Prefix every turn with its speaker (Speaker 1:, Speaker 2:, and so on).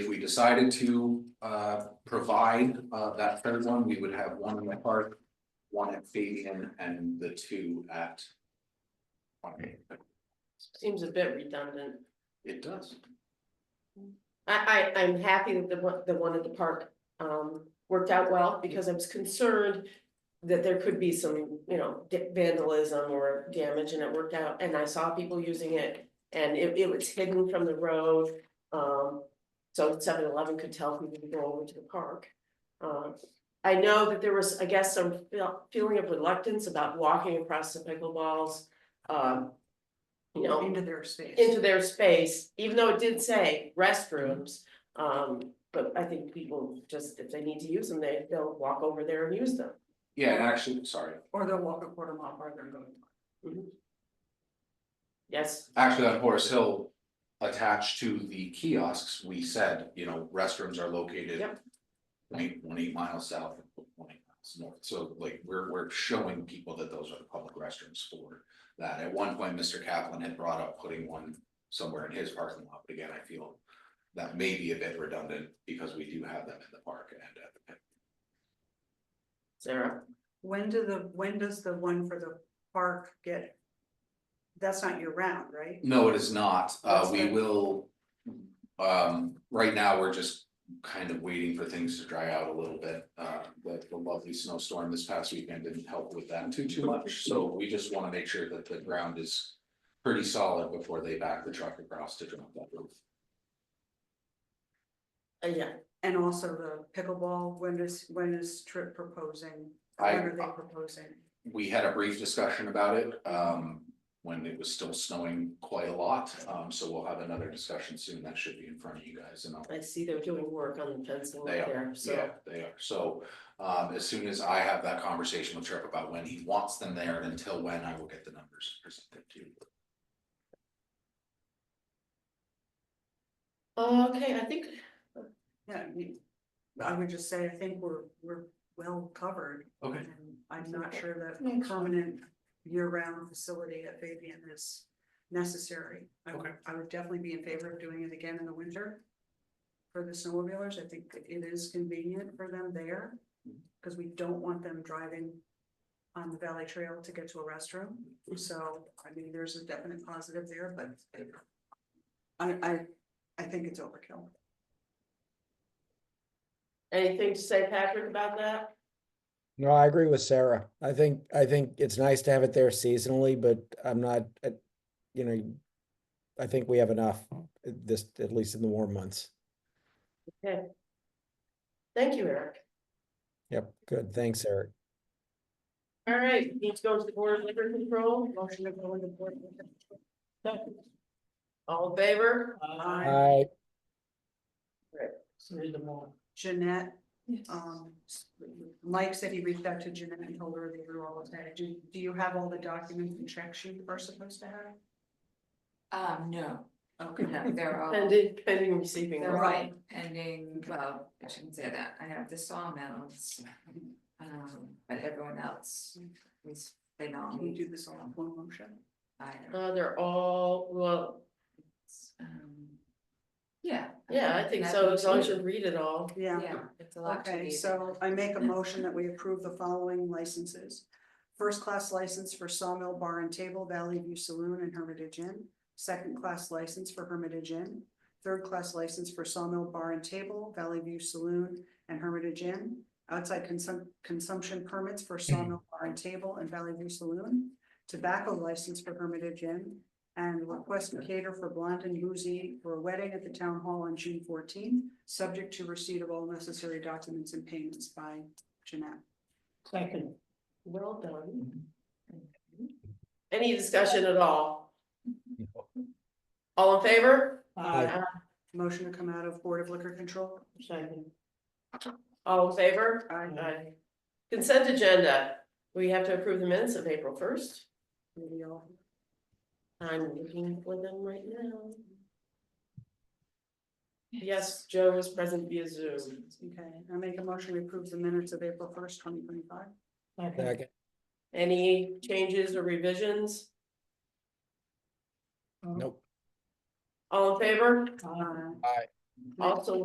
Speaker 1: If we decided to uh provide uh that third one, we would have one in the park, one at Fabian and the two at.
Speaker 2: Seems a bit redundant.
Speaker 1: It does.
Speaker 2: I, I, I'm happy that the one, the one at the park, um, worked out well, because I was concerned that there could be some, you know, da- vandalism or damage, and it worked out, and I saw people using it, and it, it was hidden from the road, um, so 7-Eleven could tell people to go over to the park. Um, I know that there was, I guess, some feel- feeling of reluctance about walking across the pickleballs, um, you know,
Speaker 3: Into their space.
Speaker 2: into their space, even though it did say restrooms. Um, but I think people just, if they need to use them, they, they'll walk over there and use them.
Speaker 1: Yeah, and actually, sorry,
Speaker 3: Or they'll walk a quarter mile farther and go.
Speaker 2: Yes,
Speaker 1: actually on Horace Hill, attached to the kiosks, we said, you know, restrooms are located.
Speaker 2: Yep.
Speaker 1: Point one eight miles south and point eight miles north, so like we're we're showing people that those are the public restrooms for that. At one point, Mr. Kaplan had brought up putting one somewhere in his parking lot, but again, I feel. That may be a bit redundant because we do have them in the park and at the pit.
Speaker 2: Sarah,
Speaker 3: When do the, when does the one for the park get? That's not year round, right?
Speaker 1: No, it is not, uh,
Speaker 3: That's
Speaker 1: we
Speaker 3: good.
Speaker 1: will. Um, right now, we're just kind of waiting for things to dry out a little bit, uh, but the lovely snowstorm this past weekend didn't help with that too, too much. So we just wanna make sure that the ground is pretty solid before they back the truck across to drop that roof.
Speaker 2: uh, yeah,
Speaker 3: And also the pickleball, when is, when is Trip proposing?
Speaker 1: I-
Speaker 3: When are they proposing?
Speaker 1: we had a brief discussion about it, um, when it was still snowing quite a lot. Um, so we'll have another discussion soon, that should be in front of you guys and I'll
Speaker 2: I see they're doing work on the fencing
Speaker 1: They
Speaker 2: right there,
Speaker 1: Yeah,
Speaker 2: so.
Speaker 1: they are, so, um, as soon as I have that conversation with Trip about when he wants them there and until when, I will get the numbers presented to you.
Speaker 2: Okay, I think,
Speaker 3: Yeah, we- I would just say, I think we're, we're well covered.
Speaker 1: Okay.
Speaker 3: And I'm not sure that a permanent year-round facility at Fabian is necessary. I would-
Speaker 1: Okay.
Speaker 3: I would definitely be in favor of doing it again in the winter. For the snowmobilers, I think that it is convenient for them there, because we don't want them driving on the Valley Trail to get to a restroom. So, I mean, there's a definite positive there, but I, I, I think it's overkill.
Speaker 2: anything to say, Patrick, about that?
Speaker 4: No, I agree with Sarah. I think, I think it's nice to have it there seasonally, but I'm not, uh, you know, I think we have enough, uh, this, at least in the warm months.
Speaker 2: Thank you, Eric.
Speaker 4: Yep, good. Thanks, Eric.
Speaker 2: All right, we need to go to the board of liquor control.
Speaker 3: Motion to go into board. meeting.
Speaker 2: All in favor?
Speaker 3: Aye.
Speaker 4: Hi,
Speaker 3: Jeanette, um, Mike said he reached out to Jeanette and told her they were all that. Do, do you have all the documents and check sheet we're supposed to have?
Speaker 5: Um, no,
Speaker 3: Okay.
Speaker 5: no, they're all,
Speaker 2: Pending, pending receiving.
Speaker 5: they're
Speaker 2: order.
Speaker 5: all pending, well, I shouldn't say that, I have the sawmills. Um, but everyone else, is they know.
Speaker 3: Can you Um, do this all in one motion?
Speaker 5: I don't,
Speaker 2: Uh, they're all, well,
Speaker 5: um. Yeah.
Speaker 2: yeah, I think so, as long as you read it all.
Speaker 3: Yeah.
Speaker 5: Yeah, it's a lot to
Speaker 3: Okay,
Speaker 5: read.
Speaker 3: so I make a motion that we approve the following licenses. First-class license for Sawmill Bar and Table, Valley View Saloon and Hermitage Inn. Second-class license for Hermitage Inn. Third-class license for Sawmill Bar and Table, Valley View Saloon and Hermitage Inn. Outside consum- consumption permits for Sawmill Bar and Table and Valley View Saloon. Tobacco license for Hermitage Inn. And request to cater for Blond and Boozy for a wedding at the town hall on June fourteenth, subject to receipt of all necessary documents and payments by Jeanette.
Speaker 2: Second. Well done. Any discussion at all? All in favor?
Speaker 4: Aye.
Speaker 3: Motion to come out of Board of Liquor Control?
Speaker 2: Second. All in favor?
Speaker 3: Aye.
Speaker 2: Aye. Consent agenda, we have to approve the minutes of April first.
Speaker 3: Maybe all.
Speaker 2: I'm looking for them right now. Yes, Joe was present via Zoom.
Speaker 3: Okay, I make a motion to approve the minutes of April first, twenty twenty-five.
Speaker 4: Second.
Speaker 2: Any changes or revisions?
Speaker 4: Nope.
Speaker 2: All in favor?
Speaker 3: Uh,
Speaker 2: Also